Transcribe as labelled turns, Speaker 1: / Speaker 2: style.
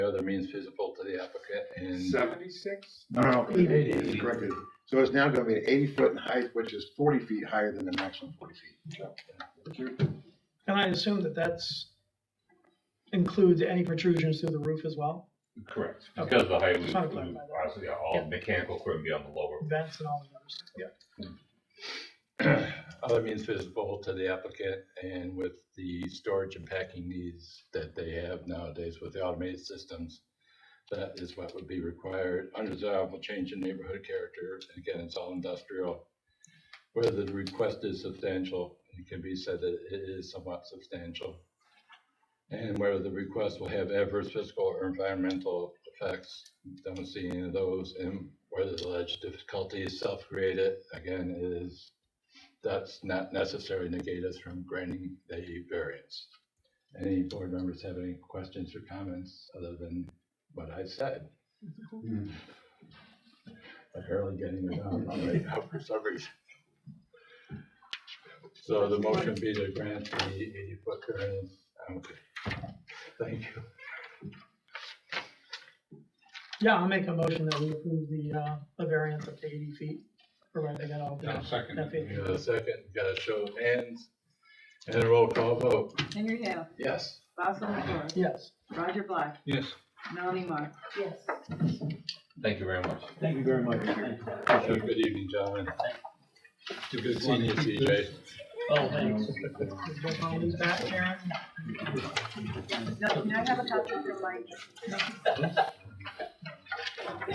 Speaker 1: other means feasible to the applicant and
Speaker 2: Seventy-six?
Speaker 3: No, no, no,
Speaker 4: Eighty.
Speaker 3: it was corrected. So it's now gonna be eighty foot in height, which is forty feet higher than the maximum forty feet.
Speaker 4: And I assume that that's includes any protrusions through the roof as well,
Speaker 5: Correct.
Speaker 4: Okay.
Speaker 5: Because the height was,
Speaker 4: Just wanted to clarify that.
Speaker 5: honestly, all
Speaker 4: Yeah.
Speaker 5: mechanical equipment be on the lower.
Speaker 4: vents and all the other stuff. Yeah.
Speaker 1: other means feasible to the applicant and with the storage and packing needs that they have nowadays with the automated systems. That is what would be required. Undesirable change in neighborhood character. And Again, it's all industrial. Whether the request is substantial, it can be said that it is somewhat substantial. And whether the request will have adverse physical or environmental effects, don't see any of those. And whether the alleged difficulty is self-created, again, it is that's not necessarily negate us from granting the variance. Any board members have any questions or comments other than what I said? Hmm. Apparently getting it down all right now for some reason. So the motion be to grant the eighty foot variance. Okay. Thank you.
Speaker 4: Yeah, I'll make a motion that we approve the, uh, the variance up to eighty feet for renting it out.
Speaker 1: We got a second, got a show of hands. And a roll call vote.
Speaker 6: Henry Hale,
Speaker 1: Yes.
Speaker 6: Basil McCoy,
Speaker 4: Yes.
Speaker 6: Roger Black,
Speaker 5: Yes.
Speaker 6: Melanie Mark. Yes.
Speaker 5: Thank you very much.
Speaker 7: Thank you very much.
Speaker 1: Good evening, gentlemen. Good seeing you, CJ.
Speaker 7: Oh, thanks.
Speaker 4: Is both all these back, Karen?
Speaker 6: No, can I have a copy of your mic?